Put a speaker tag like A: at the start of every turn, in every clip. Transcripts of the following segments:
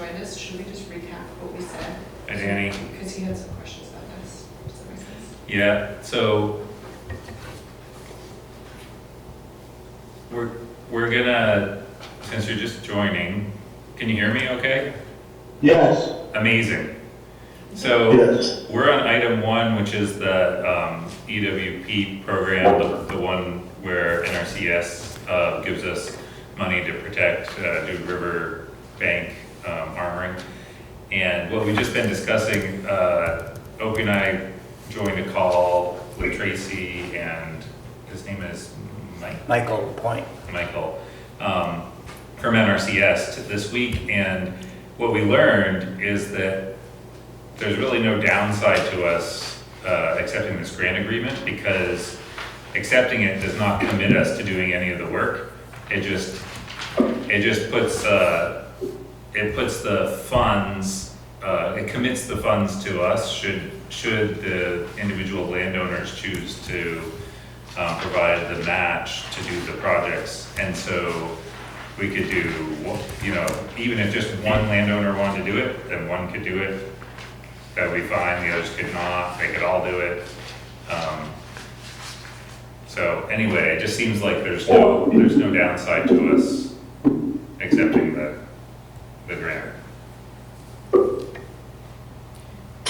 A: I missed, should we just recap what we said?
B: And Annie,
A: Because he had some questions about this. Does that make sense?
B: yeah, so we're, we're gonna, since you're just joining, can you hear me okay?
C: Yes,
B: Amazing. So
C: yes,
B: we're on item one, which is the um, EWP program, the- the one where NRCS uh, gives us money to protect uh, Dude River Bank um, armoring. And what we've just been discussing, uh, Opie and I joined a call with Tracy and his name is Mike.
D: Michael Point.
B: Michael, um, from NRCS to this week, and what we learned is that there's really no downside to us, uh, accepting this grant agreement, because accepting it does not commit us to doing any of the work. It just, it just puts, uh, it puts the funds, uh, it commits the funds to us should, should the individual landowners choose to um, provide the match to do the projects. And so we could do, you know, even if just one landowner wanted to do it, then one could do it. That'd be fine, the others could not, they could all do it. Um, So anyway, it just seems like there's no, there's no downside to us accepting the, the grant.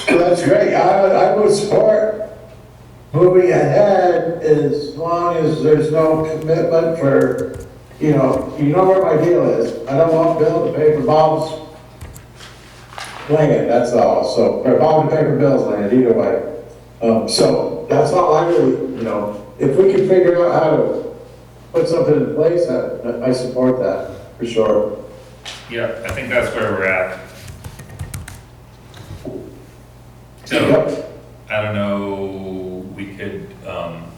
C: that's great, I would, I would support moving ahead as long as there's no commitment for, you know, you know where my deal is, I don't want Bill to pay for Bob's land, that's all, so, or Bob to pay for Bill's land, either way. Um, so, that's all I really, you know, if we can figure out how to put something in place, I, I support that, for sure.
B: Yeah, I think that's where we're at. So,
C: Yep.
B: I don't know, we could, um,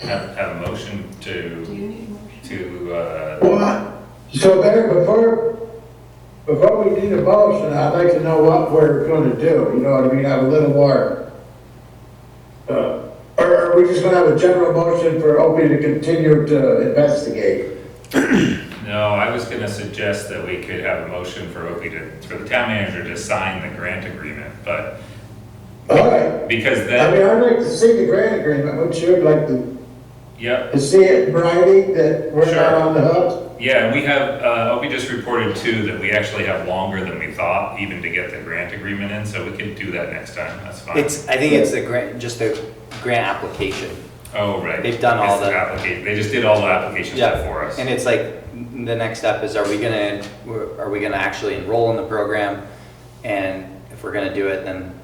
B: have, have a motion
A: Do
B: to,
A: you need a motion?
B: to, uh,
C: Well, so Barry, before, before we need a motion, I'd like to know what we're gonna do, you know what I mean, have a little more. uh, Or are we just gonna have a general motion for Opie to continue to investigate?
B: no, I was gonna suggest that we could have a motion for Opie to, for the town manager to sign the grant agreement, but,
C: All right,
B: because
C: I mean,
B: then,
C: I'd like to see the grant agreement, wouldn't you, I'd like to,
B: yep,
C: to see it in writing that we're not
B: Sure.
C: on the hook?
B: yeah, and we have, uh, Opie just reported too that we actually have longer than we thought even to get the grant agreement in, so we could do that next time, that's fine.
D: It's, I think it's the grant, just the grant application.
B: Oh, right.
D: They've done all
B: It's
D: the-
B: applica- They just did all the application stuff for us.
D: And it's like, m- the next step is, are we gonna, are we gonna actually enroll in the program? And if we're gonna do it, then,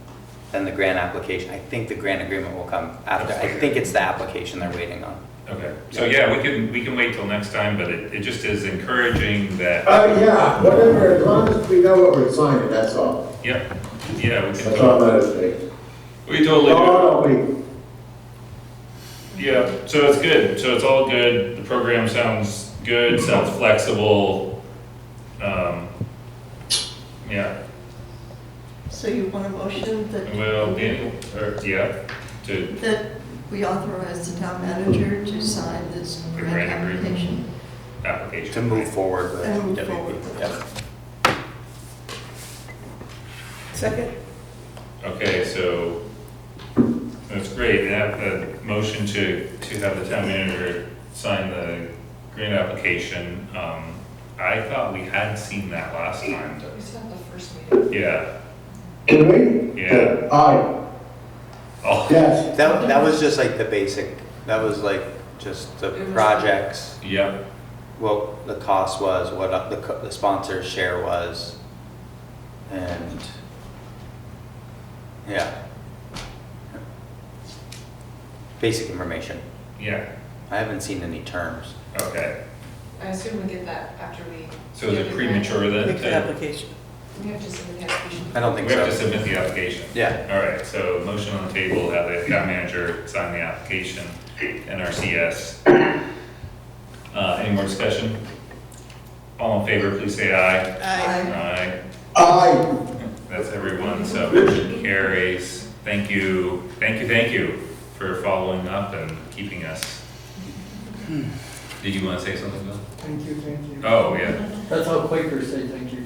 D: then the grant application, I think the grant agreement will come after. I think it's the application they're waiting on.
B: Okay, so yeah, we can, we can wait till next time, but it, it just is encouraging that,
C: Uh, yeah, whatever, as long as we know what we're signing, that's all,
B: yep, yeah, we can,
C: that's all
B: tot-
C: that is.
B: we totally do.
C: Oh, Opie,
B: Yeah, so it's good, so it's all good, the program sounds good, sounds flexible. Um, yeah,
E: So you want a motion that,
B: well, Danny, or, yeah, to,
E: that we authorize the town manager to sign this
B: The
E: grant
B: grant agreement.
E: application?
B: application.
D: To move forward with
E: And move forward.
D: WP. Yep.
F: Second?
B: Okay, so, that's great, and have a motion to, to have the town manager sign the grant application. Um, I thought we had seen that last time,
A: We said the first meeting.
B: but, yeah,
C: can we?
B: yeah.
C: Aye,
B: Oh,
C: yes,
D: That, that was just like the basic, that was like just the
A: It was-
D: projects.
B: yeah,
D: what the cost was, what the, co- the sponsor's share was, and, yeah. Basic information.
B: yeah,
D: I haven't seen any terms.
B: okay.
A: I assume we get that after we.
B: So is
A: do
B: it
A: the
B: premature then?
F: Make the
B: to-
F: application.
A: grant. We have to submit the application.
D: I don't
B: We
D: think
B: have to
D: so.
B: submit the application.
D: Yeah,
B: All right, so motion on the table, have the town manager sign the application, NRCS. Uh, any more discussion? All in favor, please say aye.
F: Aye.
B: Aye.
C: aye.
B: That's everyone, so motion carries. Thank you, thank you, thank you for following up and keeping us. Did you want to say something, Bill?
G: Hmm. Thank you, thank you.
B: Oh, yeah,
G: That's how Quakers say thank you.